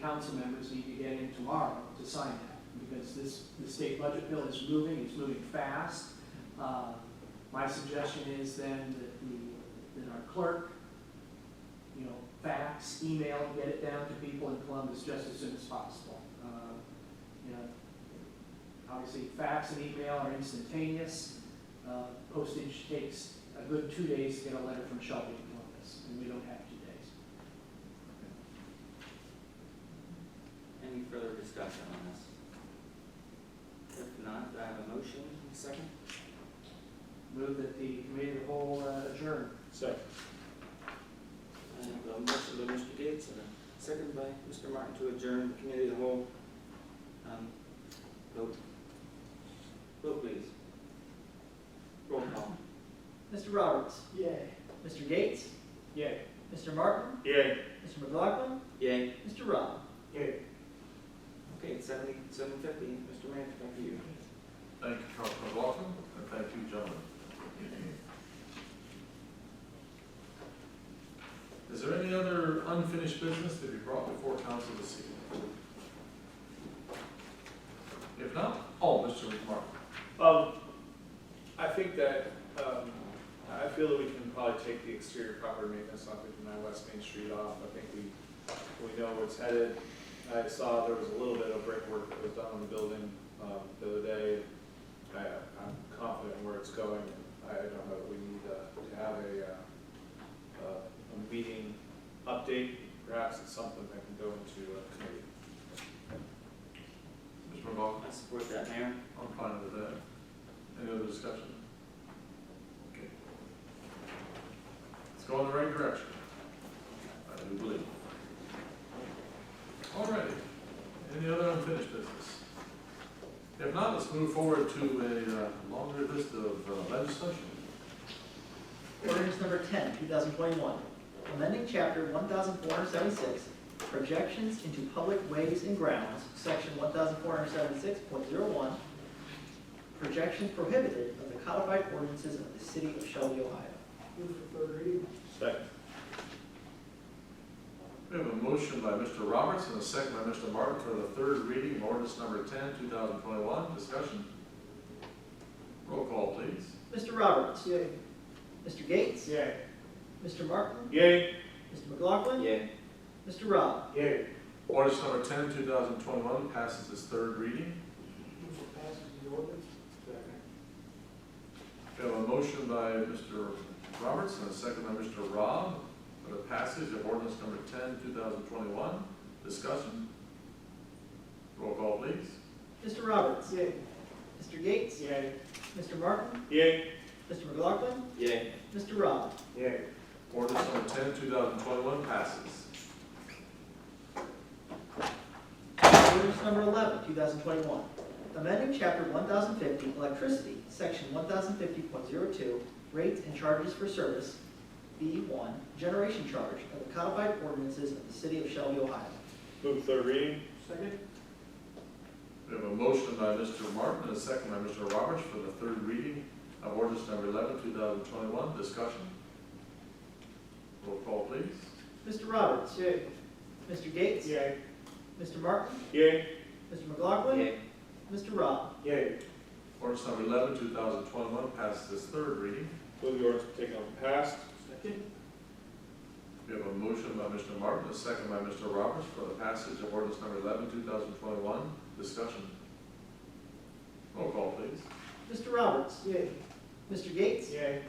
council members need to get in tomorrow to sign that, because this, the state budget bill is moving, it's moving fast. Uh, My suggestion is then that the, that our clerk, you know, fax, email, get it down to people in Columbus just as soon as possible. Uh, You know, obviously fax and email are instantaneous. Uh, Postage takes a good two days to get a letter from Shelby to Columbus, and we don't have two days. Any further discussion on this? If not, do I have a motion, second? Move that the committee of the whole uh, adjourn. Second. I have a motion by Mr. Gates and a second by Mr. Martin to adjourn the committee of the whole. Um, Vote. Vote please. Roll call. Mr. Roberts, Yay. Mr. Gates, Yay. Mr. Martin, Yay. Mr. McLaughlin, Yay. Mr. Rob. Yay. Okay, it's seventy, seven fifty. Mr. Manager, back to you. Thank you, Councilman Lawson, and thank you, gentlemen. Is there any other unfinished business to be brought before council this evening? If not, oh, Mr. Mark. Um, I think that, um, I feel that we can probably take the exterior property maintenance on fifty-nine West Main Street off. I think we, we know where it's headed. I saw there was a little bit of brickwork that was done on the building, um, the other day. I, I'm confident where it's going. I don't know, we need, uh, to have a, uh, uh, a meeting update. Perhaps it's something that can go into a committee. Mr. McLaughlin, I support that, Mayor. I'm fine with that. Any other discussion? Okay. It's going the right direction. I do believe. All righty. Any other unfinished business? If not, let's move forward to a uh, longer list of uh, legislation. Ordinance number 10, 2021, amending chapter 1476, projections into public ways and grounds, section 1476.01, projections prohibited of the codified ordinances of the city of Shelby, Ohio. Second. We have a motion by Mr. Roberts and a second by Mr. Martin for the third reading of ordinance number 10, 2021. Discussion. Roll call, please. Mr. Roberts, Yay. Mr. Gates, Yay. Mr. Martin, Yay. Mr. McLaughlin, Yay. Mr. Rob. Yay. Ordinance number 10, 2021 passes its third reading. We have a motion by Mr. Roberts and a second by Mr. Robb for the passage of ordinance number 10, 2021. Discussion. Roll call, please. Mr. Roberts. Yay. Mr. Gates. Yay. Mr. Martin. Yay. Mr. McLaughlin. Yay. Mr. Rob. Yay. Ordinance number 10, 2021 passes. Ordinance number 11, 2021. Amending Chapter 1050 Electricity, Section 1050.02, Rates and Charges for Service, B1, Generation Charge of the Codified Ordinances of the City of Shelby, Ohio. Move third reading. Second? We have a motion by Mr. Martin and a second by Mr. Roberts for the third reading of ordinance number 11, 2021. Discussion. Roll call, please. Mr. Roberts. Yay. Mr. Gates. Yay. Mr. Martin. Yay. Mr. McLaughlin. Yay. Mr. Rob. Yay. Ordinance number 11, 2021 passes its third reading. Move the ordinance to take on past. Second? We have a motion by Mr. Martin, a second by Mr. Roberts for the passage of ordinance number 11, 2021. Discussion. Roll call, please. Mr. Roberts. Yay. Mr. Gates. Yay.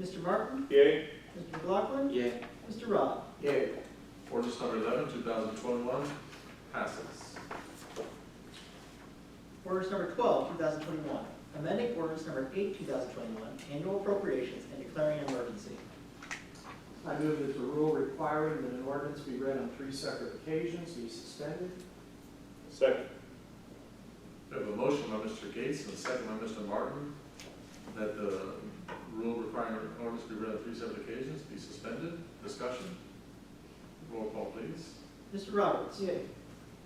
Mr. Martin. Yay. Mr. McLaughlin. Yay. Mr. Rob. Yay. Ordinance number 11, 2021 passes. Ordinance number 12, 2021, amending ordinance number 8, 2021, annual appropriations and declaring an emergency. I move that the rule requiring that an ordinance be read on three separate occasions be suspended. Second. We have a motion by Mr. Gates and a second by Mr. Martin that the rule requiring ordinance to be read on three separate occasions be suspended. Discussion. Roll call, please. Mr. Roberts.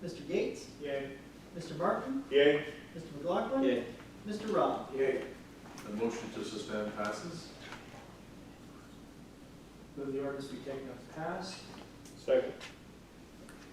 Mr. Gates. Yay. Mr. Martin. Yay. Mr. McLaughlin. Yay. Mr. Rob. Yay. The motion to suspend passes. Move the ordinance be taken up as passed. Second.